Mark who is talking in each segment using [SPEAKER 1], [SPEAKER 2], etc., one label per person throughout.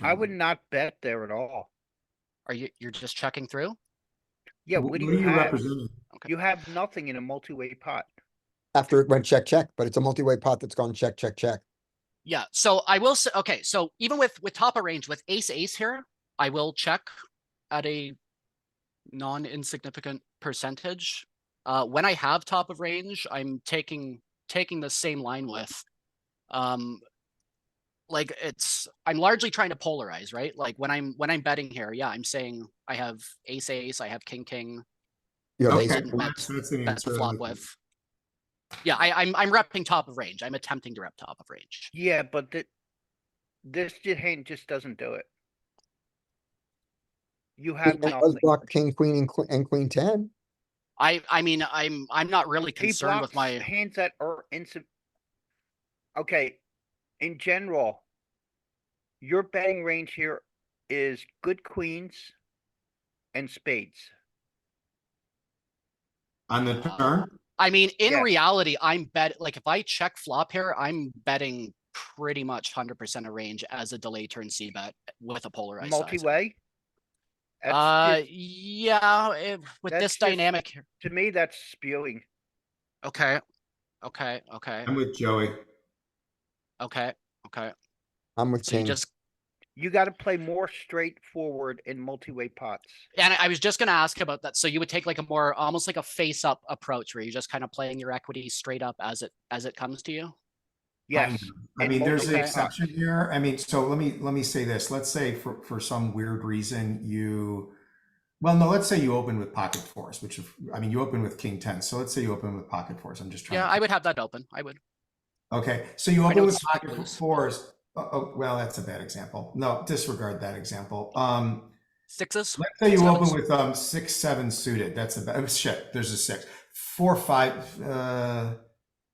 [SPEAKER 1] I
[SPEAKER 2] Mm.
[SPEAKER 1] would not bet there at all.
[SPEAKER 3] Are you, you're just checking through?
[SPEAKER 1] Yeah,
[SPEAKER 2] Wh-
[SPEAKER 1] what do you have?
[SPEAKER 2] representing?
[SPEAKER 3] Okay.
[SPEAKER 1] You have nothing in a multi-way pot.
[SPEAKER 4] after it went check, check, but it's a multi-way pot that's gone check, check, check.
[SPEAKER 3] Yeah, so I will say, okay, so even with, with top of range with ace, ace here, I will check at a non-insignificant percentage. Uh, when I have top of range, I'm taking, taking the same line with. Um, like it's, I'm largely trying to polarize, right? Like when I'm, when I'm betting here, yeah, I'm saying I have ace, ace, I have king, king,
[SPEAKER 4] You have
[SPEAKER 3] Okay.
[SPEAKER 4] ace-
[SPEAKER 3] Jason,
[SPEAKER 2] that's, that's the
[SPEAKER 3] that's the
[SPEAKER 2] answer.
[SPEAKER 3] flop with. Yeah, I, I'm, I'm repping top of range. I'm attempting to rep top of range.
[SPEAKER 1] Yeah, but that this ju- hand just doesn't do it. You have
[SPEAKER 4] It does
[SPEAKER 1] nothing.
[SPEAKER 4] block king, queen, and queen, and queen ten.
[SPEAKER 3] I, I mean, I'm, I'm not really
[SPEAKER 1] He
[SPEAKER 3] concerned with
[SPEAKER 1] blocks
[SPEAKER 3] my.
[SPEAKER 1] hands that are insub. Okay, in general, your betting range here is good queens and spades.
[SPEAKER 2] On the
[SPEAKER 3] Uh,
[SPEAKER 2] turn,
[SPEAKER 3] I mean, in
[SPEAKER 1] Yeah.
[SPEAKER 3] reality, I'm bet, like, if I check flop here, I'm betting pretty much hundred percent of range as a delay turn C bet with a polarized size.
[SPEAKER 1] Multi-way. That's
[SPEAKER 3] Uh,
[SPEAKER 1] just-
[SPEAKER 3] yeah, if- with
[SPEAKER 1] that's
[SPEAKER 3] this
[SPEAKER 1] just-
[SPEAKER 3] dynamic here,
[SPEAKER 1] To me, that's spewing.
[SPEAKER 3] okay, okay, okay,
[SPEAKER 2] I'm with Joey.
[SPEAKER 3] okay, okay.
[SPEAKER 4] I'm with
[SPEAKER 3] So you
[SPEAKER 4] king.
[SPEAKER 3] just,
[SPEAKER 1] You gotta play more straightforward in multi-way pots.
[SPEAKER 3] and I I was just gonna ask about that. So you would take like a more, almost like a face up approach where you're just kind of playing your equity straight up as it, as it comes to you?
[SPEAKER 1] Yes,
[SPEAKER 2] I
[SPEAKER 1] and
[SPEAKER 2] mean, there's an
[SPEAKER 1] multi-way
[SPEAKER 2] exception here. I mean, so let me, let me say this. Let's say for, for some weird reason you, well, no, let's say you open with pocket fours, which, if- I mean, you open with king ten. So let's say you open with pocket fours. I'm just trying.
[SPEAKER 3] Yeah,
[SPEAKER 2] to-
[SPEAKER 3] I would have that open. I would.
[SPEAKER 2] Okay, so you
[SPEAKER 3] I
[SPEAKER 2] open
[SPEAKER 3] know
[SPEAKER 2] with
[SPEAKER 3] it's
[SPEAKER 2] pocket
[SPEAKER 3] loose.
[SPEAKER 2] fours. Oh, oh, well, that's a bad example. No, disregard that example. Um,
[SPEAKER 3] Sixes?
[SPEAKER 2] Let's say you
[SPEAKER 3] Sevens.
[SPEAKER 2] open with um six, seven suited. That's a oh, shit. There's a six, four, five. Uh,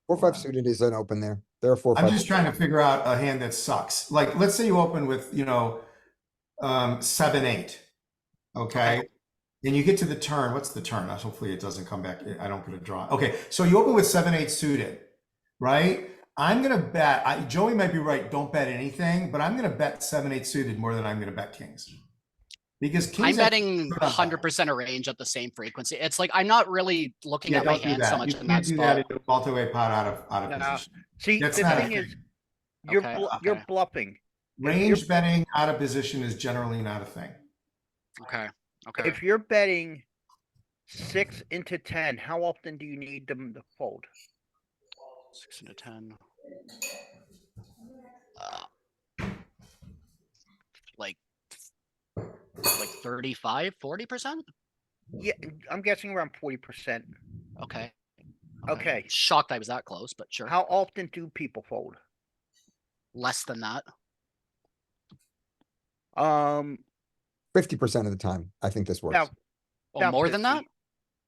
[SPEAKER 4] Four, five suited is an open there. There are four,
[SPEAKER 2] I'm
[SPEAKER 4] five.
[SPEAKER 2] just trying to figure out a hand that sucks. Like, let's say you open with you know, um, seven, eight. Okay. And you get to the turn. What's the turn? Uh, Hopefully it doesn't come back. I don't get a draw. Okay. So you open with seven, eight suited, right? I'm gonna bet. I, Joey might be right. Don't bet anything, but I'm gonna bet seven, eight suited more than I'm gonna bet kings, because kings.
[SPEAKER 3] I'm
[SPEAKER 2] have-
[SPEAKER 3] betting
[SPEAKER 2] good on
[SPEAKER 3] hundred percent of range at the same frequency. It's like I'm not really looking
[SPEAKER 2] Yeah,
[SPEAKER 3] at my
[SPEAKER 2] don't do
[SPEAKER 3] hand so
[SPEAKER 2] that.
[SPEAKER 3] much
[SPEAKER 2] You
[SPEAKER 3] in that
[SPEAKER 2] can't do that
[SPEAKER 3] spot.
[SPEAKER 2] in a multi-way pot out of, out of
[SPEAKER 1] No.
[SPEAKER 2] position.
[SPEAKER 1] See, the
[SPEAKER 2] That's not a
[SPEAKER 1] thing is,
[SPEAKER 2] thing.
[SPEAKER 1] you're,
[SPEAKER 3] Okay,
[SPEAKER 1] blu- you're
[SPEAKER 3] okay.
[SPEAKER 1] bluffing.
[SPEAKER 2] Range betting out of position is generally not a thing.
[SPEAKER 3] Okay, okay.
[SPEAKER 1] If you're betting six into ten, how often do you need them to fold?
[SPEAKER 3] Six into ten. Uh, Like, like 35, 40 percent?
[SPEAKER 1] Yeah, I'm guessing around forty percent.
[SPEAKER 3] Okay.
[SPEAKER 1] Okay.
[SPEAKER 3] Shocked I was that close, but sure.
[SPEAKER 1] How often do people fold?
[SPEAKER 3] Less than that.
[SPEAKER 1] Um,
[SPEAKER 4] Fifty percent of the time, I think this works.
[SPEAKER 1] now,
[SPEAKER 3] Oh,
[SPEAKER 1] About
[SPEAKER 3] more than that?
[SPEAKER 1] 50.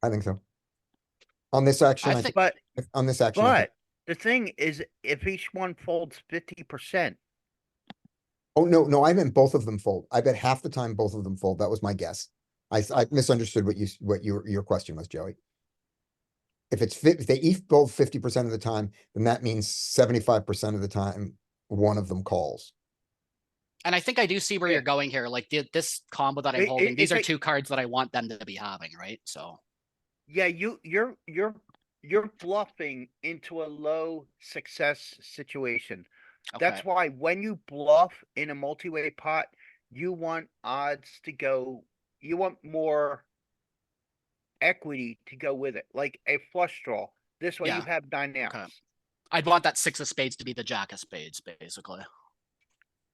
[SPEAKER 4] I think so. On this action,
[SPEAKER 3] I
[SPEAKER 4] I
[SPEAKER 3] think-
[SPEAKER 1] but,
[SPEAKER 4] think- on this action, I think-
[SPEAKER 1] but the thing is, if each one folds fifty percent,
[SPEAKER 4] oh, no, no, I meant both of them fold. I bet half the time both of them fold. That was my guess. I, s- I misunderstood what you, s- what your, your question was, Joey. If it's fit, if they each fold fifty percent of the time, then that means seventy-five percent of the time, one of them calls.
[SPEAKER 3] And I think I do see where
[SPEAKER 1] Yeah.
[SPEAKER 3] you're going here. Like thi- this combo that
[SPEAKER 1] It-
[SPEAKER 3] I'm
[SPEAKER 1] it-
[SPEAKER 3] holding, these
[SPEAKER 1] it's
[SPEAKER 3] are
[SPEAKER 1] like-
[SPEAKER 3] two cards that I want them to be having, right? So,
[SPEAKER 1] yeah, you, you're, you're, you're bluffing into a low success situation.
[SPEAKER 3] okay.
[SPEAKER 1] That's why when you bluff in a multi-way pot, you want odds to go, you want more equity to go with it, like a flush draw. This way you
[SPEAKER 3] Yeah.
[SPEAKER 1] have nine outs.
[SPEAKER 3] I'd want that six of spades to be the jack of spades, basically.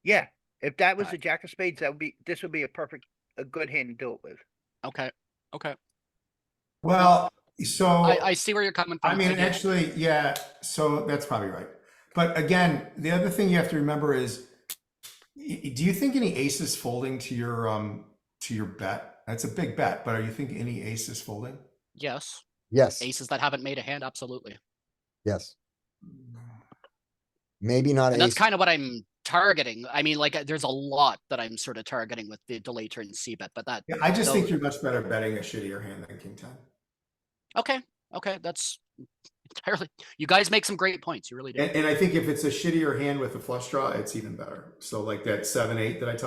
[SPEAKER 1] Yeah, if that was
[SPEAKER 3] Right.
[SPEAKER 1] a jack of spades, that would be, this would be a perfect, a good hand to do it with.
[SPEAKER 3] Okay, okay.
[SPEAKER 2] Well, so,
[SPEAKER 3] I, I see where you're coming from.
[SPEAKER 2] I mean,
[SPEAKER 3] do.
[SPEAKER 2] actually, yeah, so that's probably right. But again, the other thing you have to remember is, y- do you think any ace is folding to your, um, to your bet? That's a big bet, but are you thinking any ace is folding?
[SPEAKER 3] Yes,
[SPEAKER 4] Yes,
[SPEAKER 3] aces that haven't made a hand, absolutely.
[SPEAKER 4] yes, maybe not
[SPEAKER 3] And that's
[SPEAKER 4] ace.
[SPEAKER 3] kind of what I'm targeting. I mean, like, uh, there's a lot that I'm sort of targeting with the delay turn C bet, but that,
[SPEAKER 2] Yeah, I just think
[SPEAKER 3] No.
[SPEAKER 2] you're much better betting a shittier hand than king ten.
[SPEAKER 3] okay, okay, that's entirely, you guys make some great points, you really do.
[SPEAKER 2] And, and I think if it's a shittier hand with a flush draw, it's even better. So like that seven, eight that I talked